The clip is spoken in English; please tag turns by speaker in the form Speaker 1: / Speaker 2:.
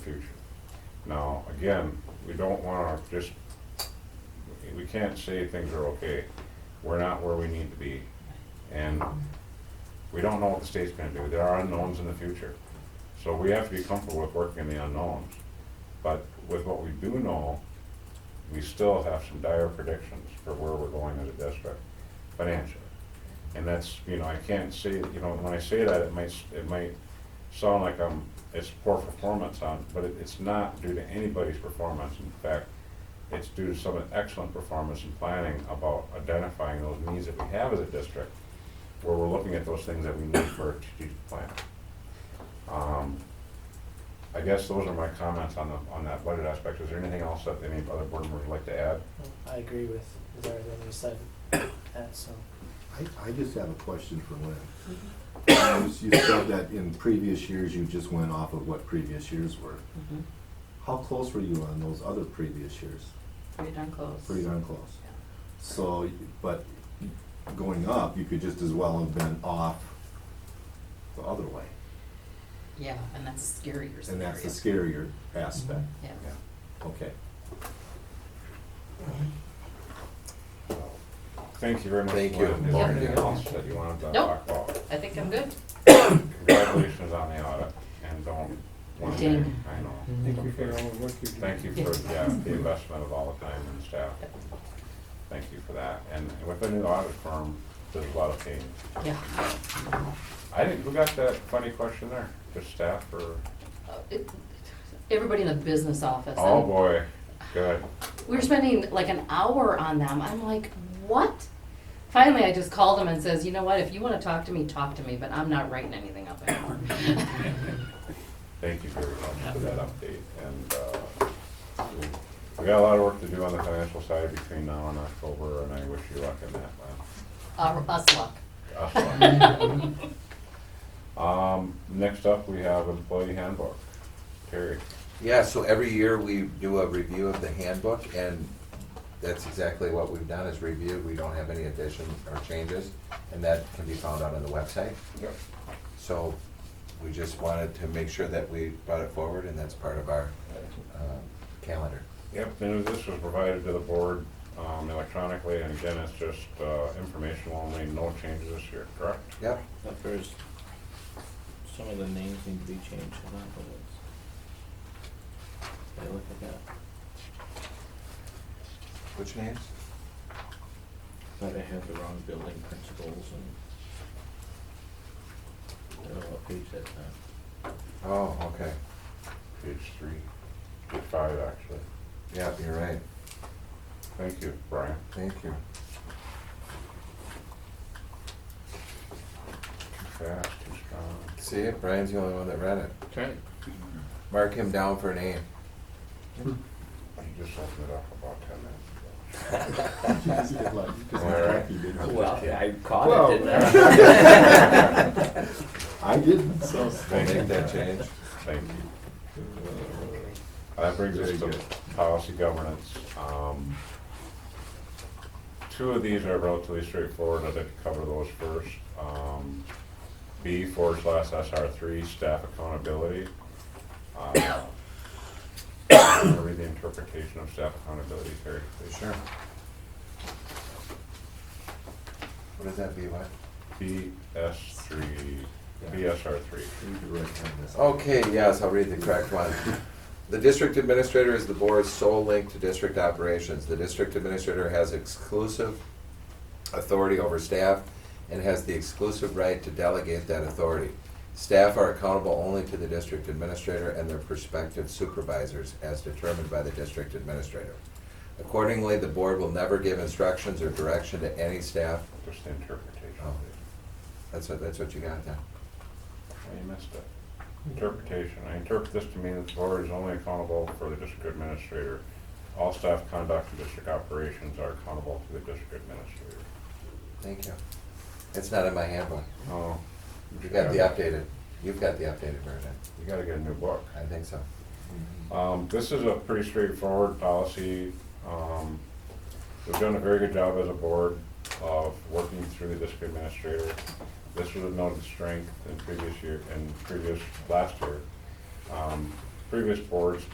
Speaker 1: future. Now, again, we don't wanna just, we can't say things are okay. We're not where we need to be. And we don't know what the state's gonna do. There are unknowns in the future. So we have to be comfortable with working in the unknowns. But with what we do know, we still have some dire predictions for where we're going as a district financially. And that's, you know, I can't say, you know, when I say that, it might, s- it might sound like I'm, it's poor performance on, but it, it's not due to anybody's performance. In fact, it's due to some excellent performance in planning about identifying those needs that we have as a district, where we're looking at those things that we need for a strategic plan. Um, I guess those are my comments on the, on that budget aspect. Is there anything else that any other board members would like to add?
Speaker 2: I agree with with everything you said, that, so.
Speaker 3: I, I just have a question for Lynn. You s- You said that in previous years, you just went off of what previous years were.
Speaker 4: Mhm.
Speaker 3: How close were you on those other previous years?
Speaker 4: Pretty darn close.
Speaker 3: Pretty darn close. So, but going up, you could just as well have been off the other way.
Speaker 4: Yeah, and that's scarier.
Speaker 3: And that's the
Speaker 4: scarier.
Speaker 3: scarier Mm-hmm. aspect.
Speaker 4: Yeah.
Speaker 3: Okay.
Speaker 1: Thank you very much.
Speaker 5: Thank you.
Speaker 1: Lynn. Is there
Speaker 4: Yep.
Speaker 1: anything else that you wanted to
Speaker 4: Nope.
Speaker 1: talk about?
Speaker 4: I think I'm good.
Speaker 1: Congratulations on the audit and don't. one
Speaker 4: Ding.
Speaker 1: thing, I know.
Speaker 6: Thank you for all the work you do.
Speaker 1: Thank you for, yeah, the investment of all the time and staff. Thank you for that. And with the new audit firm, there's a lot of change.
Speaker 4: Yeah.
Speaker 1: I didn't, who got that funny question there? Just staff or?
Speaker 4: Uh, it- Everybody in the business office.
Speaker 1: Oh,
Speaker 4: and
Speaker 1: boy, good.
Speaker 4: We were spending like an hour on them. I'm like, what? Finally, I just called them and says, you know what, if you want to talk to me, talk to me, but I'm not writing anything up anymore.
Speaker 1: Thank you very much for that update, and, uh, we got a lot of work to do on the financial side between now and October, and I wish you luck in that, Lynn.
Speaker 4: Uh, Us luck.
Speaker 1: Us luck. Um, next up, we have employee handbook, Terry.
Speaker 5: Yeah, so every year we do a review of the handbook, and that's exactly what we've done, is review. We don't have any additions or changes, and that can be found out on the website.
Speaker 1: Yep.
Speaker 5: So we just wanted to make sure that we brought it forward, and that's part of our um, calendar.
Speaker 1: Yep, and this was provided to the board, um, electronically, and again, it's just, uh, informational only, no changes this year, correct?
Speaker 5: Yep,
Speaker 7: But there's, some of the names need to be changed, and that was. I look at that,
Speaker 5: which names?
Speaker 7: but I have the wrong building principles and. I don't know what page that's on.
Speaker 5: Oh, okay.
Speaker 1: Page three, page five, actually.
Speaker 5: Yep, you're right.
Speaker 1: Thank you, Brian.
Speaker 5: Thank you.
Speaker 1: Too fast, too strong.
Speaker 5: See it? Brian's the only one that read it.
Speaker 7: Okay.
Speaker 5: Mark him down for a name.
Speaker 1: He just opened it up about ten minutes
Speaker 5: right.
Speaker 7: Well, I
Speaker 3: Well,
Speaker 7: caught it, didn't I?
Speaker 5: We'll
Speaker 3: I didn't, so.
Speaker 5: make that change.
Speaker 1: ago. Thank you. That brings us to policy governance. Um, Two of these are relatively straightforward, I'd like to cover those first. Um, B forward slash SR three, staff accountability. Uh, I'm gonna Read the interpretation of staff accountability here.
Speaker 5: Sure. What does that be, what?
Speaker 1: BS three, BSR three.
Speaker 5: Okay, yes, I'll read the correct one. The district administrator is the board's sole link to district operations. The district administrator has exclusive authority over staff and has the exclusive right to delegate that authority. Staff are accountable only to the district administrator and their prospective supervisors as determined by the district administrator. Accordingly, the board will never give instructions or direction to any staff.
Speaker 1: Just the interpretation.
Speaker 5: Oh, That's what, that's what you got then?
Speaker 1: Oh, You missed it. Interpretation, I interpret this to mean that the board is only accountable for the district administrator. All staff conduct and district operations are accountable to the district administrator.
Speaker 5: Thank you. It's not in my handbook.
Speaker 1: Oh.
Speaker 5: You got the updated, you've got the updated version.
Speaker 1: You gotta get a new book.
Speaker 5: I think so.
Speaker 3: Mm-hmm.
Speaker 1: Um, this is a pretty straightforward policy. Um, we've done a very good job as a board of working through the district administrator. This was a noted strength in previous year, in previous, last year. Um, previous boards